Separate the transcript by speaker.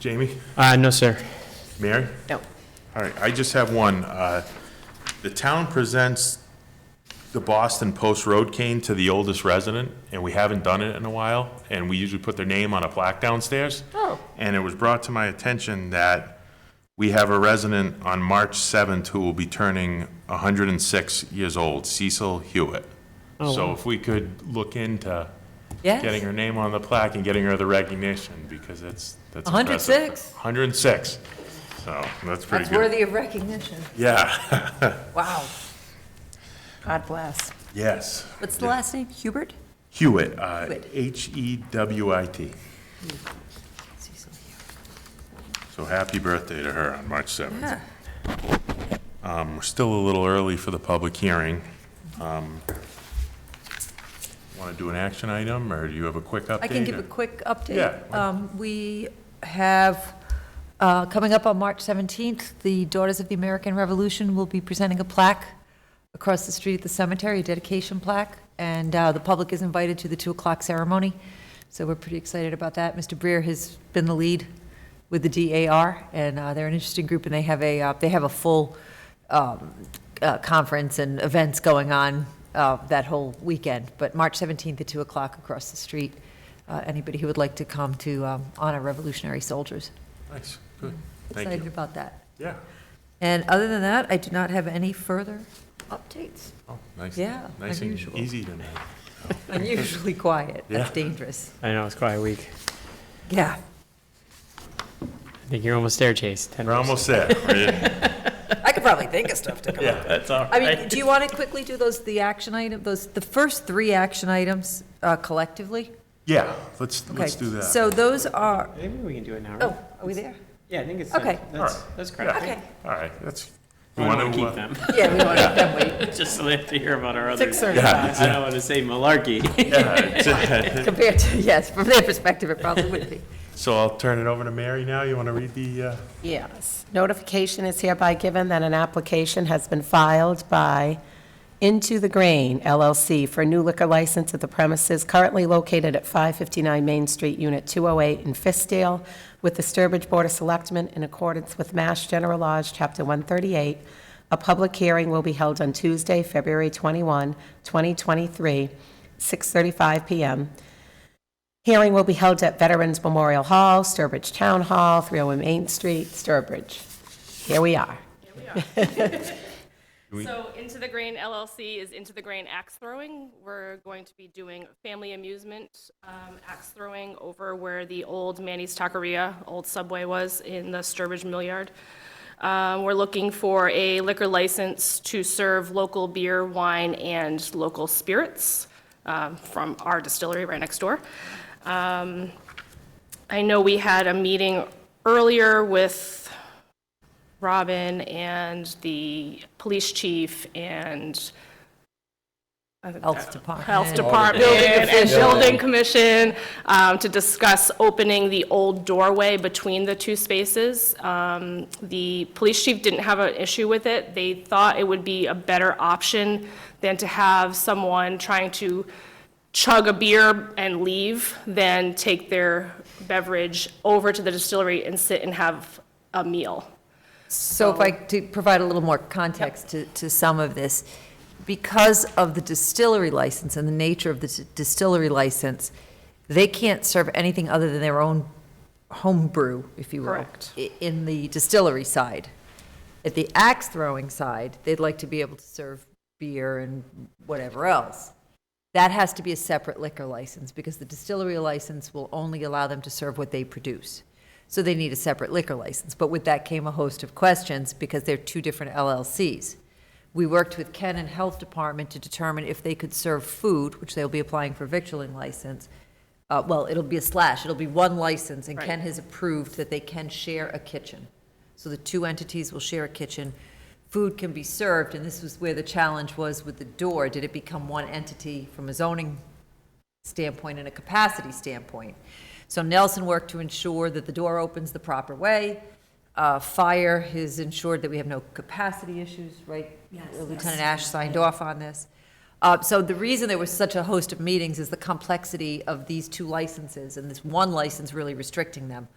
Speaker 1: Jamie?
Speaker 2: Uh, no, sir.
Speaker 1: Mary?
Speaker 3: No.
Speaker 1: All right, I just have one. Uh, The town presents the Boston Post Road cane to the oldest resident, and we haven't done it in a while, and we usually put their name on a plaque downstairs.
Speaker 3: Oh.
Speaker 1: And it was brought to my attention that we have a resident on March 7th who will be turning 106 years old, Cecil Hewitt.
Speaker 3: Oh,
Speaker 1: So if we could look into
Speaker 3: Yes.
Speaker 1: getting her name on the plaque and getting her the recognition, because it's, that's impressive.
Speaker 3: 106?
Speaker 1: 106. So that's pretty
Speaker 3: That's
Speaker 1: good.
Speaker 3: worthy of recognition.
Speaker 1: Yeah.
Speaker 3: Wow. God bless.
Speaker 1: Yes.
Speaker 3: What's the last name? Hubert?
Speaker 1: Hewitt, uh,
Speaker 3: Hewitt.
Speaker 1: H-E-W-I-T. So happy birthday to her on March 7th.
Speaker 3: Yeah.
Speaker 1: Um, We're still a little early for the public hearing. Want to do an action item, or do you have a quick update?
Speaker 3: I can give
Speaker 1: or-
Speaker 3: a quick update.
Speaker 1: Yeah.
Speaker 3: Um, We have, uh, coming up on March 17th, the Daughters of the American Revolution will be presenting a plaque across the street at the cemetery, a dedication plaque, and uh, the public is invited to the 2 o'clock ceremony, so we're pretty excited about that. Mr. Breer has been the lead with the DAR, and uh, they're an interesting group, and they have a, uh, they have a full um, uh, conference and events going on uh, that whole weekend, but March 17th at 2 o'clock across the street, uh, anybody who would like to come to um, honor revolutionary soldiers.
Speaker 1: Nice, good. Thank
Speaker 3: Excited
Speaker 1: you.
Speaker 3: about that.
Speaker 1: Yeah.
Speaker 3: And other than that, I do not have any further updates.
Speaker 1: Oh, nice.
Speaker 3: Yeah,
Speaker 1: Nice and
Speaker 3: unusual.
Speaker 1: easy tonight.
Speaker 3: Unusually quiet. That's
Speaker 1: Yeah.
Speaker 3: dangerous.
Speaker 2: I know, it's quite a week.
Speaker 3: Yeah.
Speaker 2: I think you're almost there, Chase. 10%.
Speaker 1: We're almost there. We're-
Speaker 3: I could probably think of stuff to come up.
Speaker 1: Yeah.
Speaker 2: That's all
Speaker 3: I
Speaker 2: right.
Speaker 3: mean, do you want to quickly do those, the action item, those, the first three action items uh, collectively?
Speaker 1: Yeah, let's,
Speaker 3: Okay.
Speaker 1: let's do that.
Speaker 3: So those are,
Speaker 2: I think we can do it now, right?
Speaker 3: oh, are we there?
Speaker 2: Yeah, I think it's.
Speaker 3: Okay.
Speaker 2: done. That's,
Speaker 1: All right.
Speaker 2: that's correct.
Speaker 3: Okay.
Speaker 1: All right, that's.
Speaker 2: We
Speaker 1: you
Speaker 2: want
Speaker 1: wanna,
Speaker 2: to keep
Speaker 1: uh,
Speaker 2: them,
Speaker 3: Yeah, we want to them wait.
Speaker 2: just so they have to hear about our other.
Speaker 3: Six or
Speaker 1: Yeah.
Speaker 3: five.
Speaker 2: I don't want to say malarkey.
Speaker 1: yeah, it's-
Speaker 3: Compared to, yes, from their perspective, it probably would be.
Speaker 1: So I'll turn it over to Mary now. You want to read the, uh,
Speaker 4: Yes. Notification is hereby given that an application has been filed by Into the Grain LLC for a new liquor license at the premises currently located at 559 Main Street, Unit 208 in Fiskdale, with the Sturbridge Board of Selectmen in accordance with Mass General Laws, Chapter 138. A public hearing will be held on Tuesday, February 21, 2023, 6:35 PM. Hearing will be held at Veterans Memorial Hall, Sturbridge Town Hall, 301 Main Street, Sturbridge. Here we are.
Speaker 5: So Into the Grain LLC is Into the Grain Axe Throwing. We're going to be doing family amusement um, axe throwing over where the old Manny's Taqueria, old Subway was in the Sturbridge Mill Yard. Um, We're looking for a liquor license to serve local beer, wine, and local spirits um, from our distillery right next door. Um, I know we had a meeting earlier with Robin and the police chief and
Speaker 3: Health Department.
Speaker 5: health department and building commission um, to discuss opening the old doorway between the two spaces. Um, The police chief didn't have an issue with it. They thought it would be a better option than to have someone trying to chug a beer and leave than take their beverage over to the distillery and sit and have a meal.
Speaker 3: So if I, to provide a little more context to, to some of this, because of the distillery license and the nature of the dis- distillery license, they can't serve anything other than their own home brew, if you will.
Speaker 5: Correct.
Speaker 3: i- In the distillery side. At the axe throwing side, they'd like to be able to serve beer and whatever else. That has to be a separate liquor license, because the distillery license will only allow them to serve what they produce. So they need a separate liquor license. But with that came a host of questions, because they're two different LLCs. We worked with Ken and Health Department to determine if they could serve food, which they'll be applying for victualling license. Uh, well, it'll be a slash, it'll be one license, and Ken has approved that they can share a kitchen. So the two entities will share a kitchen. Food can be served, and this was where the challenge was with the door. Did it become one entity from a zoning standpoint and a capacity standpoint. So Nelson worked to ensure that the door opens the proper way. Uh, Fire has ensured that we have no capacity issues, right? Uh, Lieutenant Ash signed off on this. Uh, So the reason there was such a host of meetings is the complexity of these two licenses and this one license really restricting them.